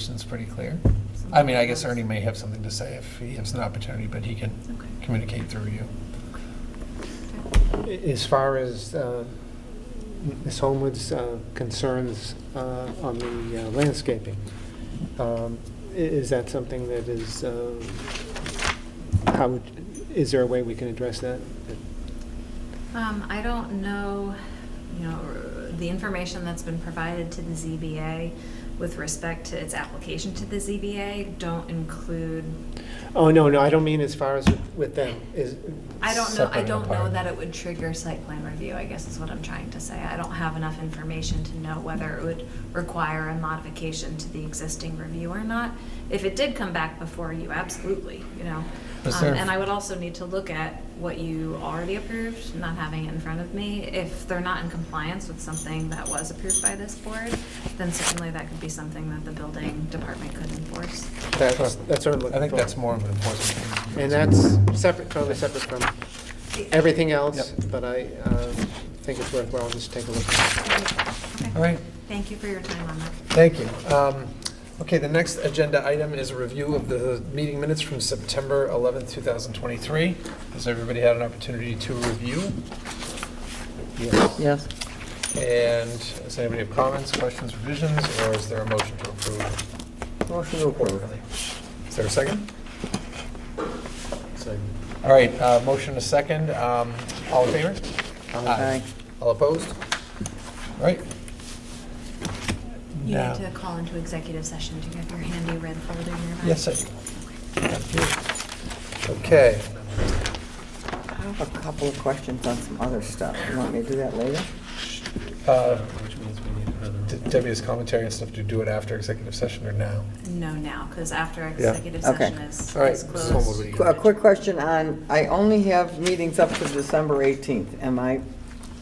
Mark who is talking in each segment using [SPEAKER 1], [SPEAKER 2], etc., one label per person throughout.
[SPEAKER 1] definition's pretty clear. I mean, I guess Ernie may have something to say if he has an opportunity, but he can
[SPEAKER 2] Okay.
[SPEAKER 1] communicate through you.
[SPEAKER 3] As far as uh, Ms. Homewood's uh, concerns uh, on the uh, landscaping, um, i- is that something that is, uh, how, would- is there a way we can address that?
[SPEAKER 2] Um, I don't know, you know, the information that's been provided to the ZBA with respect to its application to the ZBA don't include,
[SPEAKER 3] Oh, no, no, I don't mean as far as with- with them, is.
[SPEAKER 2] I don't know,
[SPEAKER 1] Separate
[SPEAKER 2] I
[SPEAKER 1] and
[SPEAKER 2] don't know
[SPEAKER 1] apart.
[SPEAKER 2] that it would trigger site plan review, I guess is what I'm trying to say. I don't have enough information to know whether it would require a modification to the existing review or not. If it did come back before you, absolutely, you know.
[SPEAKER 1] Is
[SPEAKER 2] Um,
[SPEAKER 1] there-
[SPEAKER 2] And I would also need to look at what you already approved, not having it in front of me. If they're not in compliance with something that was approved by this board, then certainly that could be something that the building department could enforce.
[SPEAKER 3] That's, that's what I'm looking for.
[SPEAKER 1] I think that's more of an enforcement thing.
[SPEAKER 3] And that's separate, totally separate from everything else,
[SPEAKER 1] Yep.
[SPEAKER 3] but I uh, think it's worthwhile just take a look.
[SPEAKER 2] Okay.
[SPEAKER 1] All right.
[SPEAKER 2] Thank you for your time on that.
[SPEAKER 1] Thank you. Um, Okay, the next agenda item is a review of the meeting minutes from September 11th, 2023. Has everybody had an opportunity to review?
[SPEAKER 4] Yes.
[SPEAKER 1] And does anybody have comments, questions, revisions, or is there a motion to approve?
[SPEAKER 4] Motion to approve.
[SPEAKER 1] Is there a second? Second. All right, uh, motion a second. Um, All in favor? Aye.
[SPEAKER 4] Aye.
[SPEAKER 1] All opposed? All right.
[SPEAKER 2] You
[SPEAKER 1] Now-
[SPEAKER 2] need to call into executive session. Do you have your handy red folder nearby?
[SPEAKER 1] Yes, I do. Thank you. Okay.
[SPEAKER 4] I have a couple of questions on some other stuff. You want me to do that later?
[SPEAKER 1] Uh, De- Debbie has commentary and stuff. Do you do it after executive session or now?
[SPEAKER 2] No, now, because after
[SPEAKER 1] Yeah.
[SPEAKER 2] executive
[SPEAKER 4] Okay.
[SPEAKER 2] session is
[SPEAKER 1] All right,
[SPEAKER 2] is
[SPEAKER 1] so
[SPEAKER 2] closed.
[SPEAKER 1] what do we
[SPEAKER 4] Qu- A quick question on, I only have meetings up to December 18th. Am I,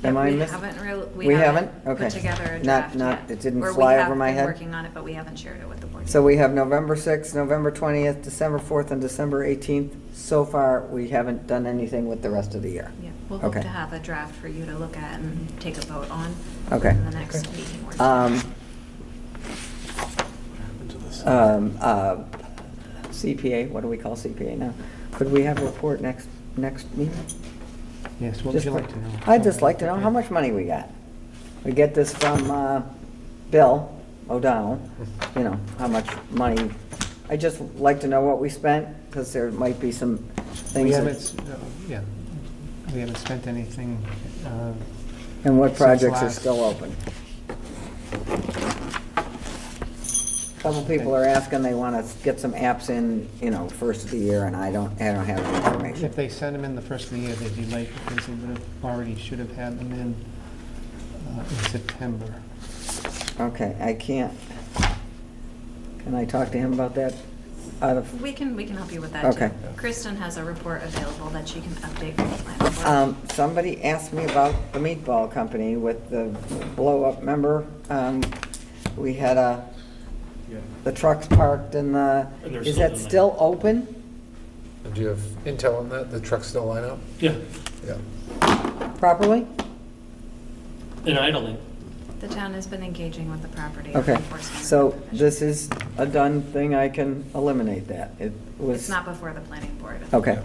[SPEAKER 4] am I
[SPEAKER 2] We
[SPEAKER 4] missing?
[SPEAKER 2] haven't real, we
[SPEAKER 4] We
[SPEAKER 2] haven't
[SPEAKER 4] haven't?
[SPEAKER 2] put
[SPEAKER 4] Okay.
[SPEAKER 2] together a
[SPEAKER 4] Not-
[SPEAKER 2] draft
[SPEAKER 4] not-
[SPEAKER 2] yet.
[SPEAKER 4] it didn't
[SPEAKER 2] Or we
[SPEAKER 4] fly
[SPEAKER 2] have
[SPEAKER 4] over my
[SPEAKER 2] been
[SPEAKER 4] head?
[SPEAKER 2] working on it, but we haven't shared it with the board.
[SPEAKER 4] So we have November 6th, November 20th, December 4th, and December 18th. So far, we haven't done anything with the rest of the year.
[SPEAKER 2] Yeah, we'll hope
[SPEAKER 4] Okay.
[SPEAKER 2] to have a draft for you to look at and take a vote on.
[SPEAKER 4] Okay.
[SPEAKER 2] In the next meeting. or two.
[SPEAKER 4] Um, um, uh, CPA, what do we call CPA now? Could we have a report next, next meeting?
[SPEAKER 3] Yes, what would
[SPEAKER 4] Just
[SPEAKER 3] you like
[SPEAKER 4] for-
[SPEAKER 3] to know?
[SPEAKER 4] I'd just like to know how much money we got. We get this from uh, Bill O'Donnell, you know, how much money. I'd just like to know what we spent, because there might be some
[SPEAKER 3] We
[SPEAKER 4] things. that-
[SPEAKER 3] haven't, s- no, yeah, we haven't spent anything. uh,
[SPEAKER 4] And what
[SPEAKER 3] since
[SPEAKER 4] projects are
[SPEAKER 3] last-
[SPEAKER 4] still open. Couple people are asking, they want to get some apps in, you know, first of the year, and I don't, I don't have the information.
[SPEAKER 3] If they send them in the first of the year, they'd be late because they would have, already should have had them in uh, in September.
[SPEAKER 4] Okay, I can't. Can I talk to him about that out of
[SPEAKER 2] We can, we can help you with that too.
[SPEAKER 4] Okay.
[SPEAKER 2] Kristen has a report available that she can update for the planning board.
[SPEAKER 4] Um, Somebody asked me about the meatball company with the blow-up, member. We had a, the trucks parked and the,
[SPEAKER 5] And they're
[SPEAKER 4] is
[SPEAKER 5] still
[SPEAKER 4] that
[SPEAKER 5] doing that.
[SPEAKER 4] still open?
[SPEAKER 1] And Do you have intel on that? The trucks still line up?
[SPEAKER 5] Yeah,
[SPEAKER 1] Yeah.
[SPEAKER 4] Properly?
[SPEAKER 5] in idling.
[SPEAKER 2] The town has been engaging with the property. on
[SPEAKER 4] Okay,
[SPEAKER 2] enforcement
[SPEAKER 4] so
[SPEAKER 2] provisions.
[SPEAKER 4] this is a done thing, I can eliminate that. It was.
[SPEAKER 2] It's not before the planning board.
[SPEAKER 4] Okay,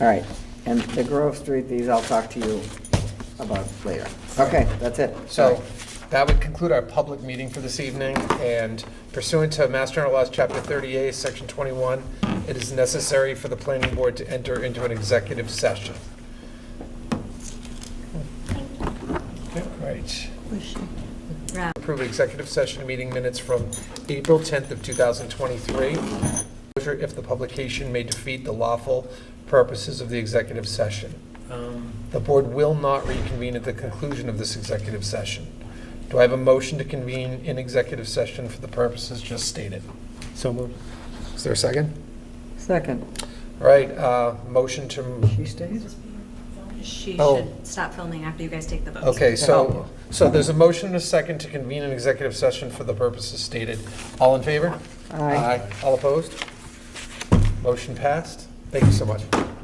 [SPEAKER 4] all right. And the Grove Street, these I'll talk to you about later. Okay, that's it.
[SPEAKER 1] So that would conclude our public meeting for this evening, and pursuant to Mass General Laws, Chapter 38, Section 21, it is necessary for the planning board to enter into an executive session. Okay, Right.
[SPEAKER 2] Right.
[SPEAKER 1] Approve executive session meeting minutes from April 10th of 2023. Disclosure If the publication may defeat the lawful purposes of the executive session.
[SPEAKER 5] Um,
[SPEAKER 1] The board will not reconvene at the conclusion of this executive session. Do I have a motion to convene in executive session for the purposes just stated?
[SPEAKER 3] So moved.
[SPEAKER 1] Is there a second?
[SPEAKER 4] Second.
[SPEAKER 1] All right, uh, motion to,
[SPEAKER 4] She stays?
[SPEAKER 2] She
[SPEAKER 1] Oh.
[SPEAKER 2] should stop filming after you guys take the votes.
[SPEAKER 1] okay, so, so there's a motion and a second to convene an executive session for the purposes stated. All in favor?
[SPEAKER 4] Aye.
[SPEAKER 1] All opposed? Motion passed. Thank you so much.